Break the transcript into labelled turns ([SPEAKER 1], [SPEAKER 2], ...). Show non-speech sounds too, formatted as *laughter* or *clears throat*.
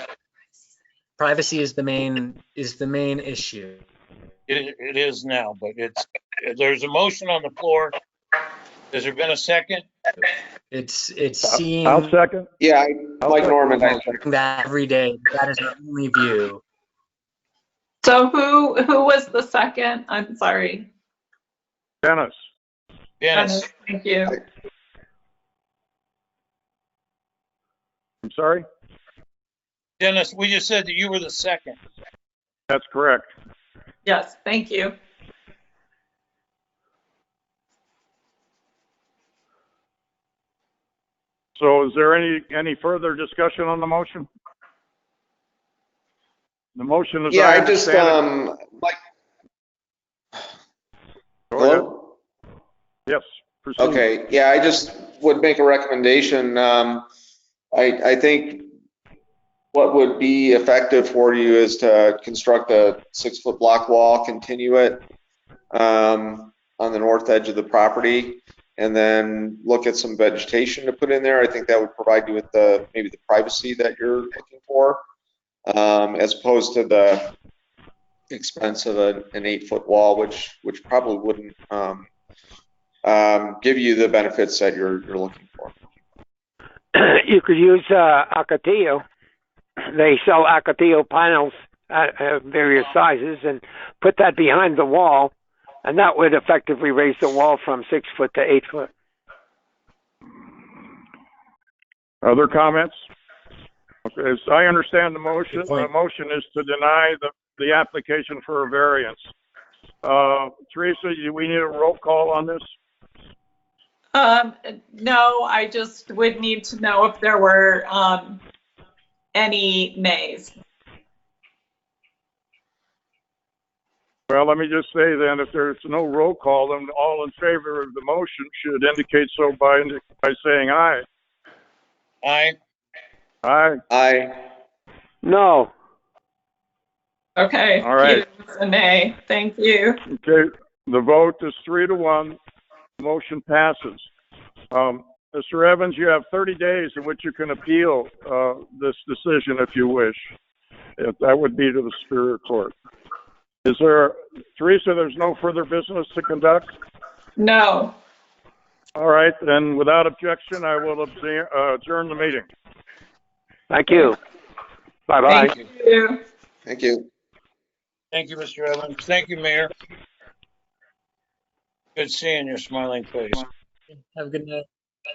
[SPEAKER 1] privacy is the main, is the main issue.
[SPEAKER 2] It, it is now, but it's, there's a motion on the floor. Has there been a second?
[SPEAKER 1] It's, it's
[SPEAKER 3] I-
[SPEAKER 1] seeing
[SPEAKER 3] I'll second.
[SPEAKER 4] Yeah, I-
[SPEAKER 3] I'll
[SPEAKER 4] like
[SPEAKER 3] second.
[SPEAKER 4] Norman, I-
[SPEAKER 1] that every day. That is our only view.
[SPEAKER 5] So who, who was the second? I'm sorry.
[SPEAKER 3] Dennis,
[SPEAKER 2] Dennis,
[SPEAKER 5] Thank you.
[SPEAKER 3] I'm sorry?
[SPEAKER 2] Dennis, we just said that you were the second.
[SPEAKER 3] That's correct.
[SPEAKER 5] Yes, thank you.
[SPEAKER 3] So is there any, any further discussion on the motion? The motion is.
[SPEAKER 4] yeah, I just,
[SPEAKER 3] understand
[SPEAKER 4] um, like,
[SPEAKER 3] it- Go ahead.
[SPEAKER 4] hello?
[SPEAKER 3] Yes. proceed.
[SPEAKER 4] Okay, yeah, I just would make a recommendation. Um, I, I think what would be effective for you is to construct a six-foot block wall, continue it um, on the north edge of the property, and then look at some vegetation to put in there. I think that would provide you with the, maybe the privacy that you're looking for, um, as opposed to the expense of a- an eight-foot wall, which, which probably wouldn't um, um, give you the benefits that you're, you're looking for.
[SPEAKER 6] *clears throat* you could use uh, acatillo. They sell acatillo panels at, at various sizes, and put that behind the wall, and that would effectively raise the wall from six foot to eight foot.
[SPEAKER 3] Other comments? Okay, As I understand the motion,
[SPEAKER 1] Good point.
[SPEAKER 3] the motion is to deny the, the application for a variance. Uh, Teresa, do we need a roll call on this?
[SPEAKER 5] Um, no, I just would need to know if there were, um, any nays.
[SPEAKER 3] Well, let me just say then, if there's no roll call, then all in favor of the motion should indicate so by, by saying aye.
[SPEAKER 2] Aye.
[SPEAKER 3] Aye.
[SPEAKER 4] I,
[SPEAKER 6] No,
[SPEAKER 5] Okay.
[SPEAKER 3] All right.
[SPEAKER 5] Hughes, A nay, thank you.
[SPEAKER 3] Okay, the vote is three to one. Motion passes. Um, Mr. Evans, you have 30 days in which you can appeal uh, this decision if you wish. If- That would be to the Superior Court. Is there, Teresa, there's no further business to conduct?
[SPEAKER 5] No,
[SPEAKER 3] All right, then without objection, I will abse- uh, adjourn the meeting.
[SPEAKER 6] thank you. Bye bye.
[SPEAKER 5] thank you.
[SPEAKER 4] thank you.
[SPEAKER 2] Thank you, Mr. Evans. Thank you, Mayor. Good seeing your smiling face.
[SPEAKER 1] Have a good night.